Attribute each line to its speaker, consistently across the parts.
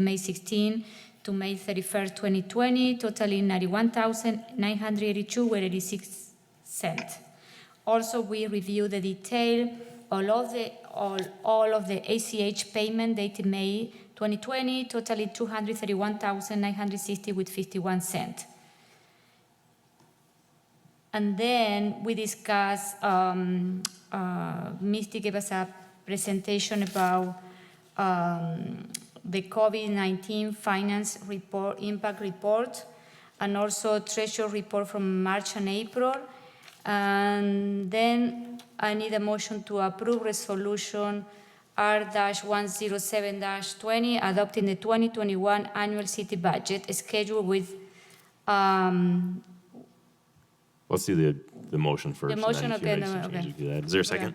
Speaker 1: May 16 to May 31st, 2020, totaling 91,982 with 86 cents. Also, we review the detail, all of the, all, all of the ACH payment dated May 2020, totaling 231,960 with 51 cents. And then we discussed, um, uh, Misty gave us a presentation about, um, the COVID-19 finance report, impact report, and also treasure report from March and April. And then I need a motion to approve resolution R one zero seven twenty, adopting the twenty twenty-one annual city budget schedule with, um,
Speaker 2: Let's do the, the motion first. and then
Speaker 1: motion,
Speaker 2: if you
Speaker 1: okay,
Speaker 2: make
Speaker 1: no,
Speaker 2: some
Speaker 1: okay.
Speaker 2: changes, do that. Is there a second?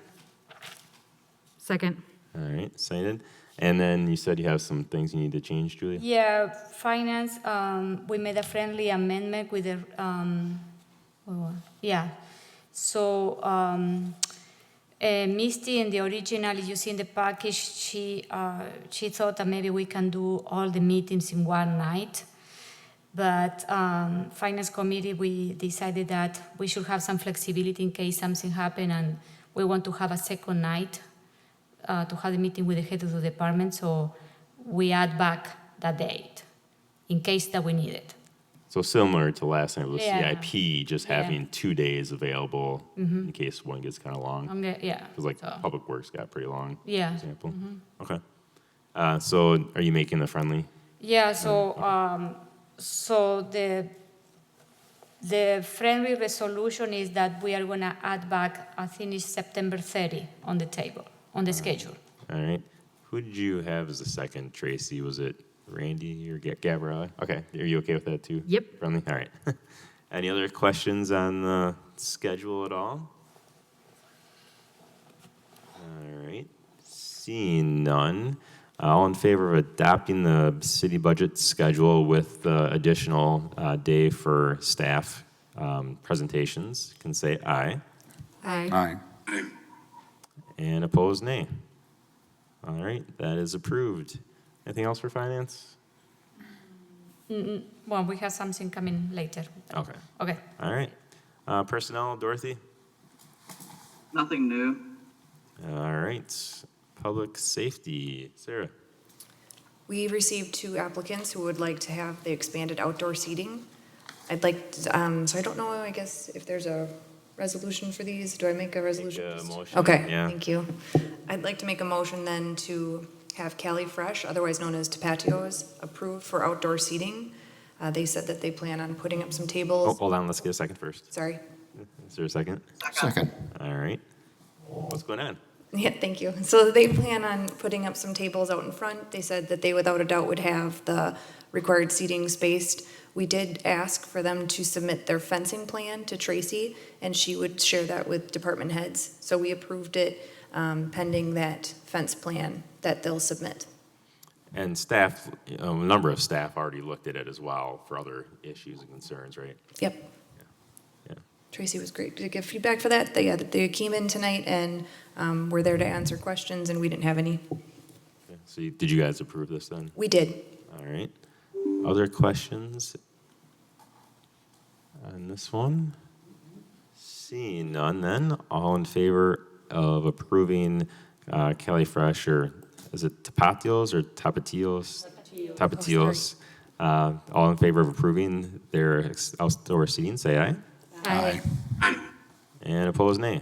Speaker 3: Second.
Speaker 2: All right, seconded. And then you said you have some things you need to change, Julia?
Speaker 1: Yeah, finance, um, we made a friendly amendment with the, um, oh, yeah. So, um, eh, Misty in the original, you see in the package, she, uh, she thought that maybe we can do all the meetings in one night. But, um, finance committee, we decided that we should have some flexibility in case something happened and we want to have a second night uh, to have a meeting with the head of the department, so we add back that date in case that we need it.
Speaker 2: So similar to last night with
Speaker 1: Yeah.
Speaker 2: CIP, just
Speaker 1: Yeah.
Speaker 2: having two days available in case one gets kind of long.
Speaker 1: I'm gonna, yeah.
Speaker 2: Because like
Speaker 1: Um, so-
Speaker 2: Public Works got pretty long, for
Speaker 1: Yeah, Mm-hmm.
Speaker 2: example. Okay. Uh, so are you making the friendly?
Speaker 1: yeah, so, um, so the, the friendly resolution is that we are gonna add back, I think it's September thirty on the table, on the schedule.
Speaker 2: All right. Who did you have as the second, Tracy? Was it Randy or Ga- Gabriella? Okay. Are you okay with that too?
Speaker 3: Yep.
Speaker 2: Friendly? All right. Any other questions on the schedule at all? All right. Seeing none. uh, All in favor of adopting the city budget schedule with the additional uh, day for staff um, presentations can say aye.
Speaker 3: Aye.
Speaker 4: Aye.
Speaker 2: And opposed, nay. All right, that is approved. Anything else for finance?
Speaker 1: Well, we have something coming later.
Speaker 2: Okay.
Speaker 1: Okay.
Speaker 2: All right. Uh, personnel, Dorothy?
Speaker 5: Nothing new.
Speaker 2: All right. Public safety, Sarah?
Speaker 6: We received two applicants who would like to have the expanded outdoor seating. I'd like, to- um, so I don't know, I guess, if there's a resolution for these. Do I make a resolution?
Speaker 2: a
Speaker 6: first?
Speaker 2: motion,
Speaker 6: Okay,
Speaker 2: yeah.
Speaker 6: thank you. I'd like to make a motion then to have Cali Fresh, otherwise known as Tapatios, approved for outdoor seating. Uh, They said that they plan on putting up some
Speaker 2: Oh,
Speaker 6: tables.
Speaker 2: hold on, let's get a second first.
Speaker 6: Sorry.
Speaker 2: Is there a second?
Speaker 4: Second.
Speaker 2: All right. What's going on?
Speaker 6: Yeah, thank you. So they plan on putting up some tables out in front. They said that they without a doubt would have the required seating spaced. We did ask for them to submit their fencing plan to Tracy, and she would share that with department heads. So we approved it um, pending that fence plan that they'll submit.
Speaker 2: And staff, a number of staff already looked at it as well for other issues and concerns, right?
Speaker 6: Yep.
Speaker 2: Yeah.
Speaker 6: Tracy was great to give feedback for that. They, uh, they came in tonight and um, were there to answer questions, and we didn't have any.
Speaker 2: Okay. So you- did you guys approve this then?
Speaker 6: We did.
Speaker 2: All right. Other questions on this one? Seeing none, then all in favor of approving uh, Kelly Fresh or is it Tapatios or Tapatios? Tapatios. Uh, all in favor of approving their ex- outdoor seating, say aye.
Speaker 4: Aye.
Speaker 2: And opposed, nay.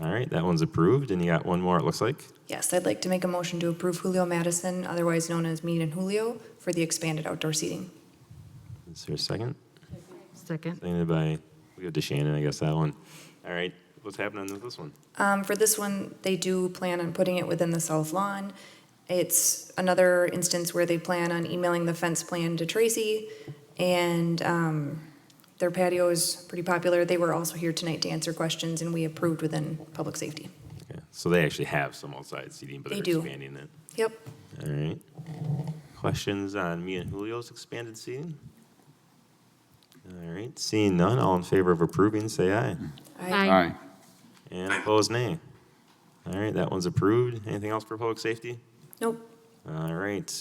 Speaker 2: All right, that one's approved, and you got one more. It looks like.
Speaker 6: Yes, I'd like to make a motion to approve Julio Madison, otherwise known as Mead and Julio, for the expanded outdoor seating.
Speaker 2: Is there a second?
Speaker 3: Second.
Speaker 2: Seconded by. We go to Shannon, I guess that one. All right, what's happening with this one?
Speaker 6: Um, for this one, they do plan on putting it within the south lawn. It's another instance where they plan on emailing the fence plan to Tracy, and, um, their patio is pretty popular. They were also here tonight to answer questions, and we approved within public safety.
Speaker 2: Okay, so they actually have some outside seating, but
Speaker 6: They
Speaker 2: they're
Speaker 6: do.
Speaker 2: expanding it.
Speaker 6: Yep,
Speaker 2: All right. Questions on me and Julio's expanded seating? All right, seeing none, all in favor of approving, say aye.
Speaker 6: Aye.
Speaker 4: Aye.
Speaker 2: And opposed, nay. All right, that one's approved. Anything else for public safety?
Speaker 6: nope.
Speaker 2: All right,